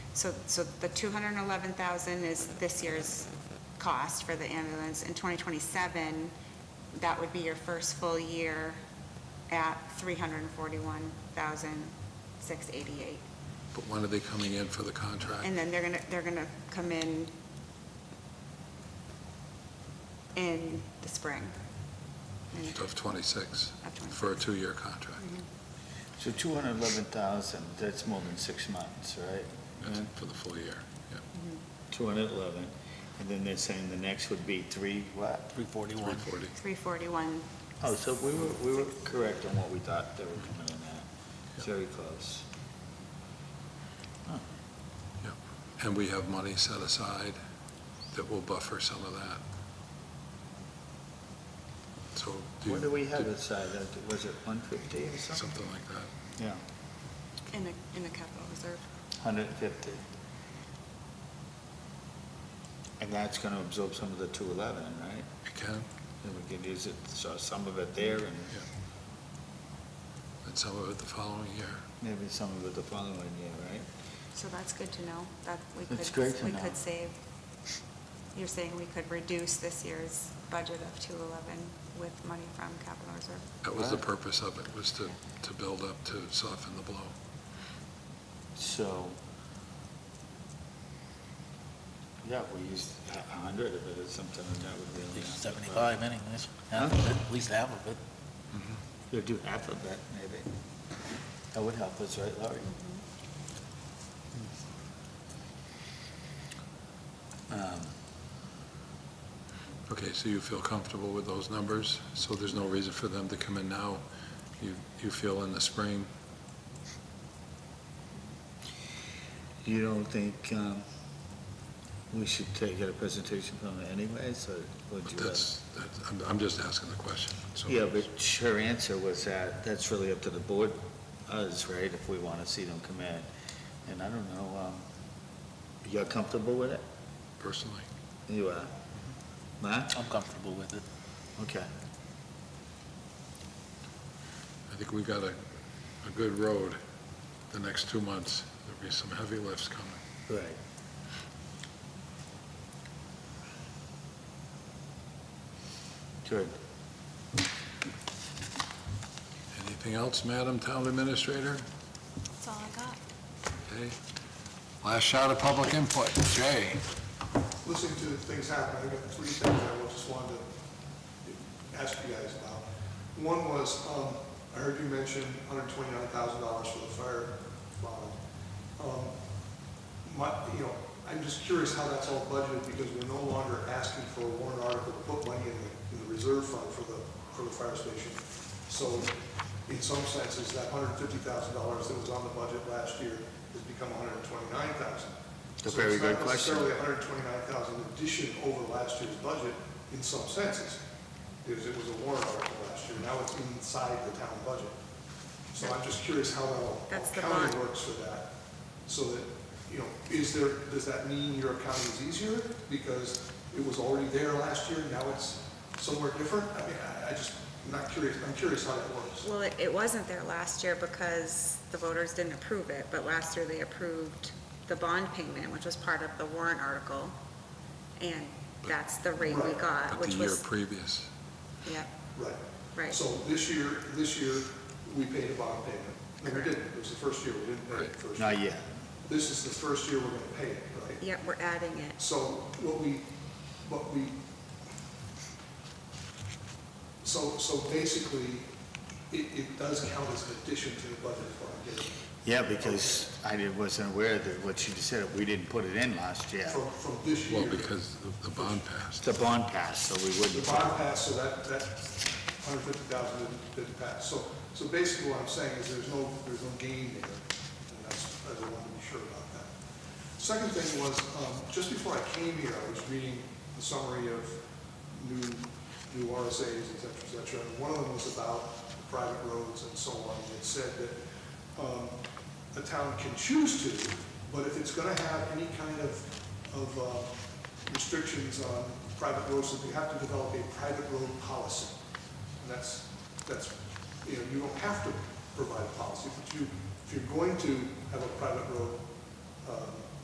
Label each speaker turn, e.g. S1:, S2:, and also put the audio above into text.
S1: so, so the 211,000 is this year's cost for the ambulance. In 2027, that would be your first full year at 341,688.
S2: But when are they coming in for the contract?
S1: And then they're gonna, they're gonna come in in the spring. And-
S2: Of Mm-hmm. 26?
S1: Of 26.
S2: For a two-year contract?
S3: So 211,000, that's more than six months, right?
S2: That's
S3: Mm-hmm. Uh,
S2: For the full year, yeah.
S3: 211, and then they're saying the next would be three, what?
S4: 341.
S2: 340.
S1: 341,
S3: Oh, so we were, we were correct on what we thought they were coming in at. Very close.
S2: And we have money set aside that will buffer some of that. So. you-
S3: What do we have aside? Uh, Was it 150 or something?
S2: Something like that.
S3: Yeah,
S1: in the, in the capital reserve.
S3: 150. And that's going to absorb some of the 211, right?
S2: It can,
S3: And we can use it, so some of it there and
S2: and some of it the following year.
S3: maybe some of it the following year, right?
S1: So that's good to know, that we
S3: That's great
S1: could,
S3: to
S1: we
S3: know.
S1: could save. You're saying we could reduce this year's budget of 211 with money from capital reserve?
S2: That was the
S3: Right.
S2: purpose of it, was to, to build up, to soften the blow.
S3: So, yeah, we used a a hundred of it or something, and that would
S4: At
S3: really.
S4: least 75 anyways,
S3: Huh?
S4: half of it, at least half of it.
S2: Mm-hmm.
S3: You'll do half of that, maybe. That would help us, right, Laurie? Um,
S2: Okay, so you feel comfortable with those numbers, so there's no reason for them to come in now. You, you feel in the spring,
S3: You don't think, um, we should take a presentation from it anyways, or would you? rather-
S2: that's, that's- I'm, I'm just asking the question, so.
S3: Yeah, but her answer was that, that's really up to the board, us, right, if we want to see them come in. And I don't know, um, you're comfortable with it?
S2: Personally,
S3: You uh, are? Matt?
S4: I'm comfortable with it.
S3: Okay.
S2: I think we've got a, a good road the next two months. There'll be some heavy lifts coming.
S3: Right. Good.
S2: Anything else, Madam Town Administrator?
S1: That's all I got.
S2: Okay. Last shot of public input, Jay.
S5: listening to things happen, I got three things I just wanted to ask you guys about. One was, um, I heard you mention hundred twenty-nine thousand dollars for the fire bond. Um, my, you know, I'm just curious how that's all budgeted, because we're no longer asking for a warrant article to put money in the, in the reserve fund for the, for the fire station. So in some senses, that hundred fifty thousand dollars that was on the budget last year has become $129,000.
S3: A very good
S5: So it's not
S3: question.
S5: necessarily 129,000 addition over last year's budget in some senses, because it was a warrant article last year, now it's inside the town budget. So I'm just curious how that all
S1: That's the
S5: accounting
S1: bond.
S5: works for that, so that, you know, is there, does that mean your accounting is easier? Because it was already there last year, now it's somewhere different? I mean, I, I just, I'm not curious, I'm curious how that works.
S1: Well, it, it wasn't there last year because the voters didn't approve it, but last year they approved the bond payment, which was part of the warrant article. And that's the rate we got,
S2: But the
S1: which
S2: year
S1: was,
S2: previous,
S1: yep,
S5: Right.
S1: right.
S5: So this year, this year, we paid a bond payment. No, we didn't, it was the first year, we didn't pay it the first year.
S3: Not yet.
S5: This is the first year we're gonna pay it, right?
S1: Yep, we're adding it.
S5: So what we, what we, so, so basically, it, it does count as an addition to the budget for our getting,
S3: Yeah, because I didn't- wasn't aware that what she just said, we didn't put it in last year.
S5: from, from this year.
S2: well, because the- the bond passed.
S3: The bond passed, so we
S5: The
S3: wouldn't.
S5: bond passed, so that, that hundred fifty thousand didn't, didn't pass. So, so basically what I'm saying is there's no, there's no gain there, and that's, I just want to be sure about that. Second thing was, um, just before I came here, I was reading the summary of new, new RSAs, et cetera, et cetera. And one of them was about private roads and so on, and it said that, um, the town can choose to, but if it's gonna have any kind of, of, uh, restrictions on private roads, that we have to develop a private road policy. And that's, that's, you know, you don't have to provide a policy, but you, if you're going to have a private road, um,